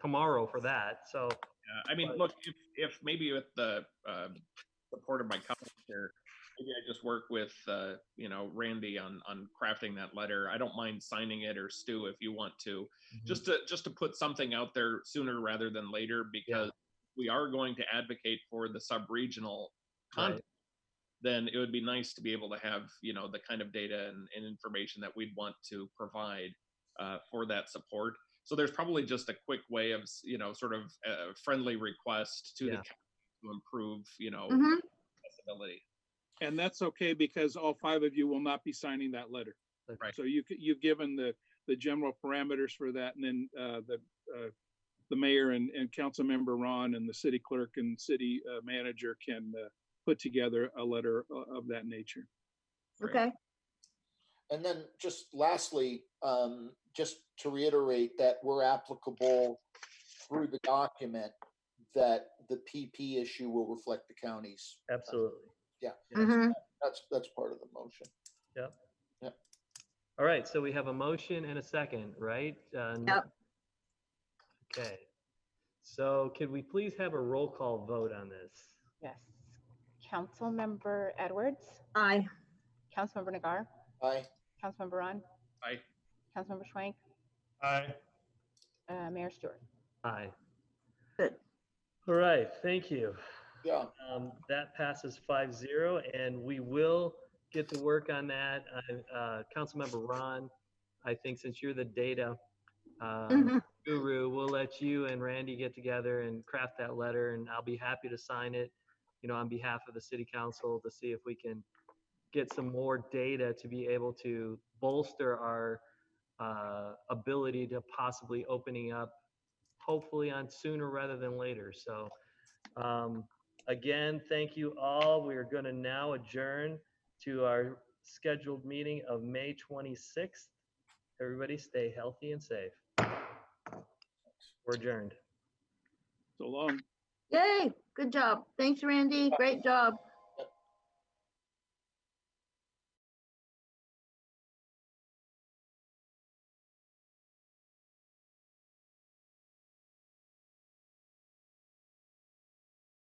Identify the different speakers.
Speaker 1: tomorrow for that, so.
Speaker 2: Yeah, I mean, look, if, if maybe with the um, support of my colleagues here, maybe I just work with, uh, you know, Randy on, on crafting that letter. I don't mind signing it or Stu if you want to. Just to, just to put something out there sooner rather than later because we are going to advocate for the sub-regional
Speaker 1: Right.
Speaker 2: content. Then it would be nice to be able to have, you know, the kind of data and, and information that we'd want to provide uh, for that support. So there's probably just a quick way of, s- you know, sort of a friendly request to the
Speaker 1: Yeah. Mm-hmm.
Speaker 2: county to improve, you know,
Speaker 3: Mhm.
Speaker 2: accessibility.
Speaker 4: And that's okay because all five of you will not be signing that letter.
Speaker 2: Right.
Speaker 4: So you, c- you've given the, the general parameters for that and then, uh, the, uh, the mayor and, and council member Ron and the city clerk and city uh, manager can, uh, put together a letter o- of that nature.
Speaker 2: Right.
Speaker 3: Okay,
Speaker 5: And then just lastly, um, just to reiterate that we're applicable through the document that the PP issue will reflect the counties.
Speaker 1: Absolutely.
Speaker 5: Yeah.
Speaker 3: Mhm.
Speaker 5: That's, that's part of the motion.
Speaker 1: All right, so we have a motion and a second, right? Uh, n-
Speaker 3: Yep.
Speaker 1: Okay. So could we please have a roll call vote on this?
Speaker 6: Yes. Councilmember Edwards,
Speaker 3: aye.
Speaker 6: Councilmember Nagar,
Speaker 5: Aye.
Speaker 6: Councilmember Ron.
Speaker 2: Aye.
Speaker 6: Councilmember Schwank,
Speaker 7: Aye.
Speaker 6: uh, Mayor Stewart.
Speaker 1: Aye.
Speaker 3: Good.
Speaker 1: All right, thank you.
Speaker 5: Yeah.
Speaker 1: Um, That passes 5-0, and we will get to work on that. I- uh, Councilmember Ron, I think since you're the data um,
Speaker 3: Mhm.
Speaker 1: guru, we'll let you and Randy get together and craft that letter, and I'll be happy to sign it, you know, on behalf of the city council to see if we can get some more data to be able to bolster our uh, ability to possibly opening up, hopefully on sooner rather than later. So um, again, thank you all. We are going to now adjourn to our scheduled meeting of May 26th. Everybody stay healthy and safe. We're adjourned.
Speaker 4: So long.
Speaker 3: Yay, good job. Thanks, Randy. Great job.